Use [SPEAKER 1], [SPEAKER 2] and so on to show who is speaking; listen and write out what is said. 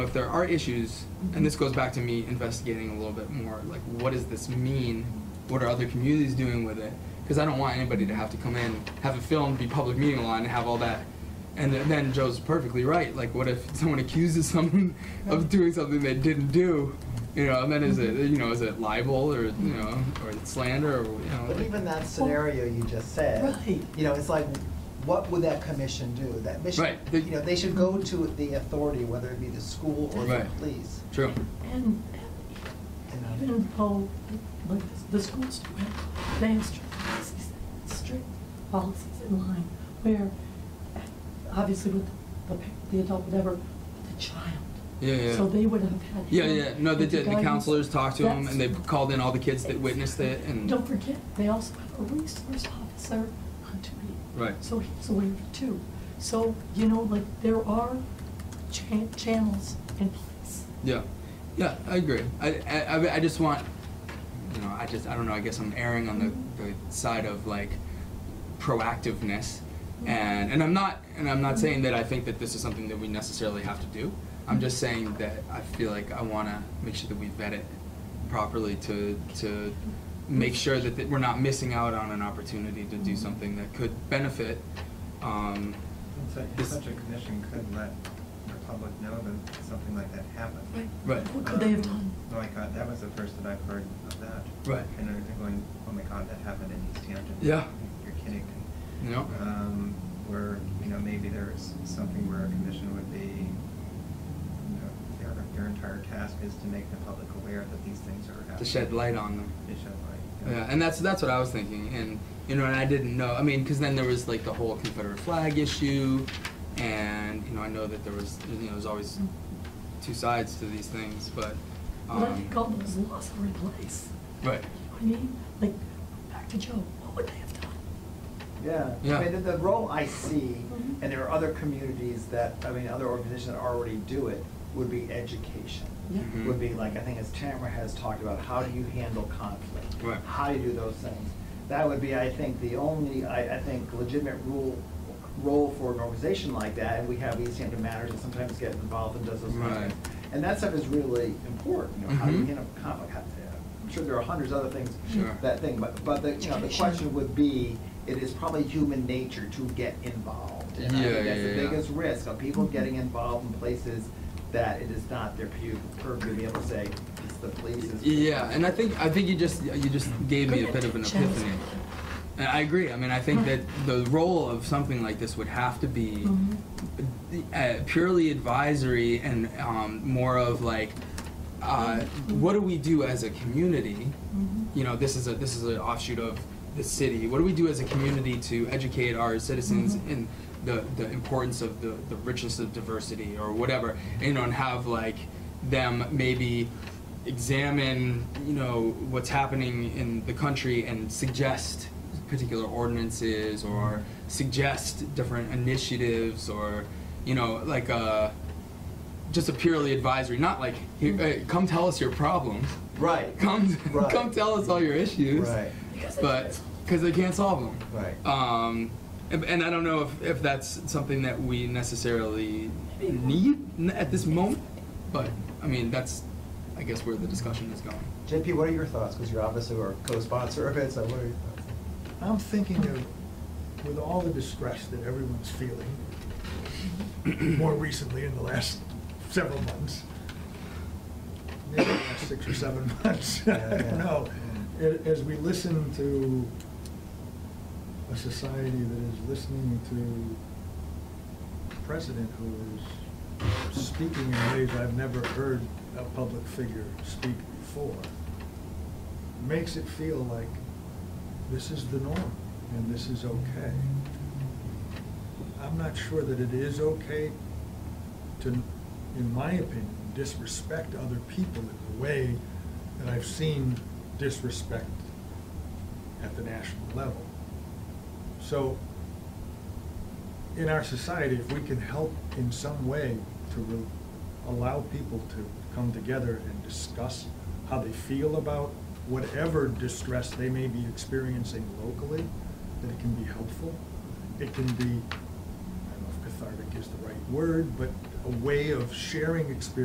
[SPEAKER 1] if there are issues, and this goes back to me investigating a little bit more, like what does this mean? What are other communities doing with it? Because I don't want anybody to have to come in, have a film, be public meeting law, and have all that. And then- then Joe's perfectly right. Like, what if someone accuses someone of doing something they didn't do? You know, and then is it you know is it libel or you know or is it slander or you know?
[SPEAKER 2] But
[SPEAKER 1] like-
[SPEAKER 2] even that scenario you just said.
[SPEAKER 3] Right.
[SPEAKER 2] You know, it's like, what would that commission do? That mission,
[SPEAKER 1] Right.
[SPEAKER 2] you know, they should go to the authority, whether it be the school or the
[SPEAKER 1] Right.
[SPEAKER 2] police.
[SPEAKER 1] True.
[SPEAKER 3] And
[SPEAKER 2] you know.
[SPEAKER 3] even though, like, the schools do have, they have strict policies, strict policies in line where, obviously with the, pa- the adult, whatever, but the child.
[SPEAKER 1] Yeah, yeah.
[SPEAKER 3] So they would have had.
[SPEAKER 1] Yeah,
[SPEAKER 3] him
[SPEAKER 1] yeah. No, they
[SPEAKER 3] with
[SPEAKER 1] did. The
[SPEAKER 3] guidance.
[SPEAKER 1] counselors talked to him,
[SPEAKER 3] That's-
[SPEAKER 1] and they called in all the kids that witnessed it, and
[SPEAKER 3] Don't forget, they also have a resource officer on duty.
[SPEAKER 1] Right.
[SPEAKER 3] So he's aware of it too. So, you know, like, there are cha- channels in place.
[SPEAKER 1] Yeah, yeah, I agree. I, I, I- I just want, you know, I just, I don't know, I guess I'm erring on the, the side of like proactiveness. And, and I'm not, and I'm not saying that I think that this is something that we necessarily have to do. I'm just saying that I feel like I want to make sure that we vet it properly to, to make sure that, that we're not missing out on an opportunity to do something that could benefit, um,
[SPEAKER 4] So Such a commission could let the public know that something like that happened.
[SPEAKER 1] Right.
[SPEAKER 3] What could they have
[SPEAKER 4] Um,
[SPEAKER 3] done?
[SPEAKER 4] Like, uh, that was the first that I've heard of that.
[SPEAKER 1] Right.
[SPEAKER 4] And then they're going, oh my God, that happened in East Hampton.
[SPEAKER 1] Yeah.
[SPEAKER 4] You're kidding.
[SPEAKER 1] you know?
[SPEAKER 4] Um, where, you know, maybe there's something where a commission would be, you know, their, their entire task is to make the public aware that these things are happening.
[SPEAKER 1] To shed light on them.
[SPEAKER 4] To shed light.
[SPEAKER 1] Yeah, and that's that's what I was thinking, and you know, and I didn't know. I mean, because then there was like the whole Confederate flag issue, and you know, I know that there was you know, there's always two sides to these things, but um,
[SPEAKER 3] But I think all those laws are in place.
[SPEAKER 1] right,
[SPEAKER 3] You know what I mean? Like, back to Joe, what would they have done?
[SPEAKER 2] Yeah.
[SPEAKER 1] Yeah.
[SPEAKER 2] I mean, the, the role I see,
[SPEAKER 3] Mhm.
[SPEAKER 2] and there are other communities that, I mean, other organizations that already do it, would be education.
[SPEAKER 3] Yeah.
[SPEAKER 1] Mhm.
[SPEAKER 2] Would be like, I think as Tamara has talked about, how do you handle conflict?
[SPEAKER 1] Right.
[SPEAKER 2] How do you do those things? That would be, I think, the only, I, I think legitimate rule, role for an organization like that, and we have East Hampton Matters that sometimes get involved and does those kinds of
[SPEAKER 1] Right.
[SPEAKER 2] things. And that stuff is really important, you know, how do you
[SPEAKER 1] Mhm.
[SPEAKER 2] handle conflict? How- I'm sure there are hundreds of other things
[SPEAKER 1] Sure.
[SPEAKER 2] that thing, but, but the, you know, the
[SPEAKER 3] Education.
[SPEAKER 2] question would be, it is probably human nature to get involved. And I
[SPEAKER 1] Yeah,
[SPEAKER 2] think that's
[SPEAKER 1] yeah,
[SPEAKER 2] the
[SPEAKER 1] yeah.
[SPEAKER 2] biggest risk, of people getting involved in places that it is not their pu- purview to be able to say, it's the police's.
[SPEAKER 1] yeah, and I think I think you just you just gave me a bit of an
[SPEAKER 3] Channels in
[SPEAKER 1] epiphany.
[SPEAKER 3] place.
[SPEAKER 1] And I agree. I mean, I think that
[SPEAKER 3] Right.
[SPEAKER 1] the role of something like this would have to be
[SPEAKER 3] Mhm.
[SPEAKER 1] uh, purely advisory and um, more of like, uh, what do we do as a community?
[SPEAKER 3] Mhm.
[SPEAKER 1] You know, this is a this is an offshoot of the city. What do we do as a community to educate our citizens
[SPEAKER 3] Mhm.
[SPEAKER 1] in the the importance of the the richness of diversity or whatever? You know, and have like them maybe examine you know what's happening in the country and suggest particular ordinances or suggest different initiatives or you know like a just a purely advisory not like here, hey, come tell us your problems
[SPEAKER 2] Mm-hmm. Right.
[SPEAKER 1] come
[SPEAKER 2] Right.
[SPEAKER 1] come tell us all your issues
[SPEAKER 2] Right.
[SPEAKER 3] Because they can't
[SPEAKER 1] but
[SPEAKER 3] solve it.
[SPEAKER 1] because they can't solve them
[SPEAKER 2] Right.
[SPEAKER 1] um, and, and I don't know if, if that's something that we necessarily need n- at this moment, but I mean, that's, I guess, where the discussion is going.
[SPEAKER 2] JP, what are your thoughts? Because you're obviously our co-sponsor of it, so what are your thoughts?
[SPEAKER 5] I'm thinking of, with all the distress that everyone's feeling, more recently in the last several months, maybe the last six or seven months, I
[SPEAKER 2] Yeah, yeah.
[SPEAKER 5] don't know. A- As we listen to a society that is listening to a president who is speaking in ways I've never heard a public figure speak before, makes it feel like this is the norm and this is okay. I'm not sure that it is okay to, in my opinion, disrespect other people in the way that I've seen disrespect at the national level. So, in our society, if we can help in some way to re- allow people to come together and discuss how they feel about whatever distress they may be experiencing locally, that it can be helpful. It can be, I don't know if cathartic is the right word, but a way of sharing experience.